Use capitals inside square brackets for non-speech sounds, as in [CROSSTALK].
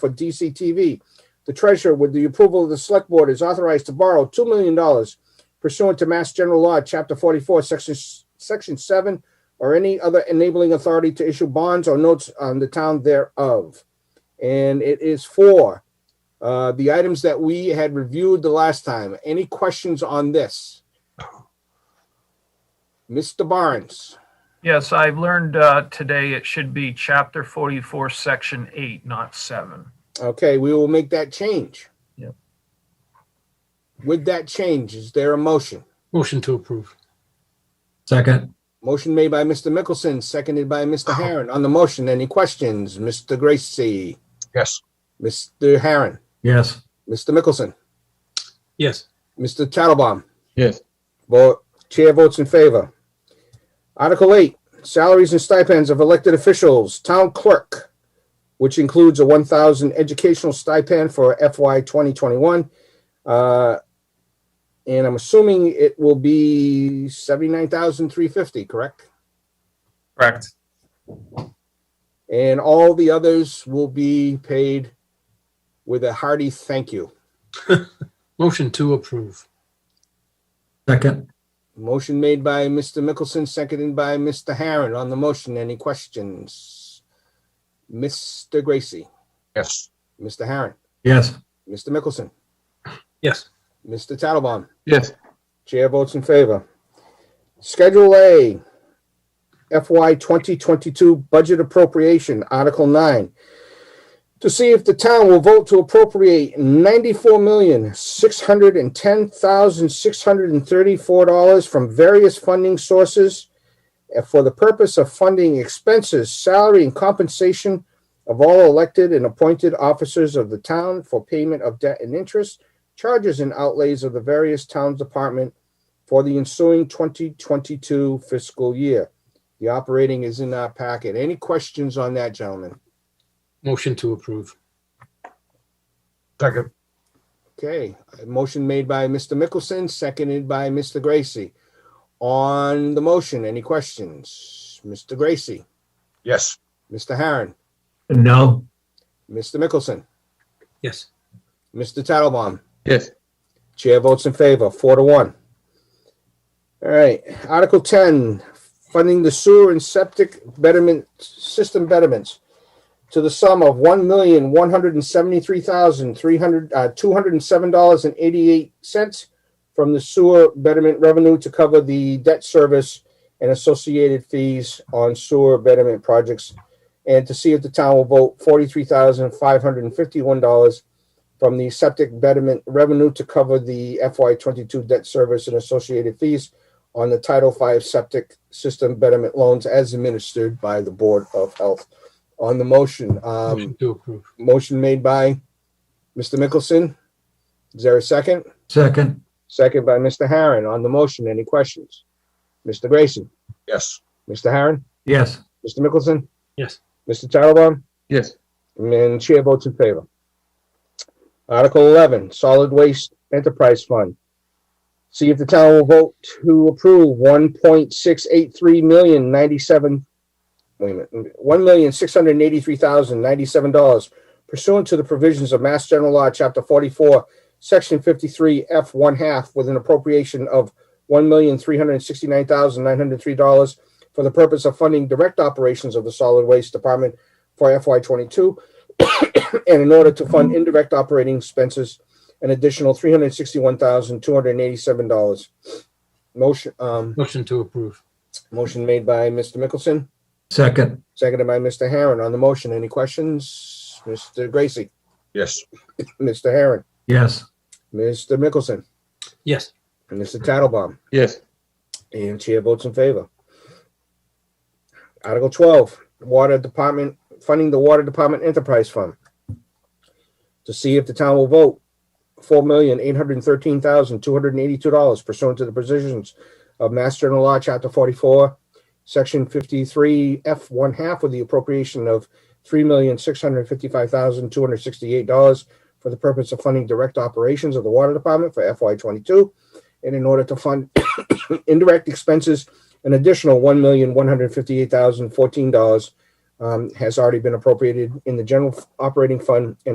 for DCTV. The treasurer, with the approval of the select board, is authorized to borrow $2 million pursuant to Mass General Law, Chapter 44, Section, Section 7, or any other enabling authority to issue bonds or notes on the town thereof. And it is for uh, the items that we had reviewed the last time. Any questions on this? Mr. Barnes? Yes, I've learned uh, today it should be chapter 44, section 8, not 7. Okay, we will make that change. Yep. With that change, is there a motion? Motion to approve. Second, Motion made by Mr. Mickelson, seconded by Mr. Harron. On the motion, any questions? Mr. Gracie, Yes. Mr. Harron, yes. Mr. Mickelson, Yes. Mr. Tattelbaum. Yes. Vote, chair votes in favor. Article eight, salaries and stipends of elected officials, town clerk, which includes a one thousand educational stipend for FY twenty twenty-one. And I'm assuming it will be seventy-nine thousand three fifty, correct? Correct. And all the others will be paid with a hearty thank you. Motion to approve. Second, Motion made by Mr. Mickelson, seconded by Mr. Harron. On the motion, any questions? Mr. Gracie, Yes. Mr. Harron, yes. Mr. Mickelson, Yes. Mr. Tattelbaum. Yes. Chair votes in favor. Schedule A, FY 2022 Budget Appropriation, Article 9. To see if the town will vote to appropriate $94,610,634 from various funding sources and for the purpose of funding expenses, salary, and compensation of all elected and appointed officers of the town for payment of debt and interest charges and outlays of the various towns department for the ensuing 2022 fiscal year. The operating is in our packet. Any questions on that, gentlemen? Motion to approve. Second. Okay, a motion made by Mr. Mickelson, seconded by Mr. Gracie. On the motion, any questions? Mr. Gracie, Yes. Mr. Harron, No, Mr. Mickelson, Yes. Mr. Tattlebaum. Yes. Chair votes in favor, four to one. All right, Article ten, funding the sewer and septic betterment, system betterments to the sum of one million, one hundred and seventy-three thousand, three hundred, uh, two hundred and seven dollars and eighty-eight cents from the sewer betterment revenue to cover the debt service and associated fees on sewer betterment projects. And to see if the town will vote forty-three thousand, five hundred and fifty-one dollars from the septic betterment revenue to cover the FY twenty-two debt service and associated fees on the Title V septic system betterment loans as administered by the Board of Health. On the motion, um, Motion to approve. motion made by Mr. Mickelson. Is there a second? second, Second by Mr. Harron. On the motion, any questions? Mr. Grayson, Yes. Mr. Harron, yes. Mr. Mickelson? Yes. Mr. Tattelbaum? Yes. And chair votes in favor. Article eleven, Solid Waste Enterprise Fund. See if the town will vote to approve one point six eight three million ninety-seven, wait a minute, one million six hundred and eighty-three thousand ninety-seven dollars pursuant to the provisions of Mass General Law, Chapter forty-four, Section fifty-three, F one half, with an appropriation of one million three hundred and sixty-nine thousand nine hundred and three dollars for the purpose of funding direct operations of the Solid Waste Department for FY twenty-two [COUGHS] and in order to fund indirect operating expenses, an additional three hundred sixty-one thousand two hundred eighty-seven dollars. Motion, um, Motion to approve. motion made by Mr. Mickelson, Second, seconded by Mr. Harron. On the motion, any questions? Mr. Gracie, Yes. Mr. Harron, yes. Mr. Mickelson, Yes. and Mr. Tattelbaum. Yes. And chair votes in favor. Article twelve, Water Department, funding the Water Department Enterprise Fund. To see if the town will vote, four million, eight hundred and thirteen thousand, two hundred and eighty-two dollars pursuant to the provisions of Mass General Law, Chapter forty-four, Section fifty-three, F one half, with the appropriation of three million, six hundred and fifty-five thousand, two hundred and sixty-eight dollars for the purpose of funding direct operations of the Water Department for FY twenty-two, and in order to fund [COUGHS] indirect expenses, an additional one million one hundred fifty-eight um, thousand fourteen dollars has already been appropriated in the general operating fund and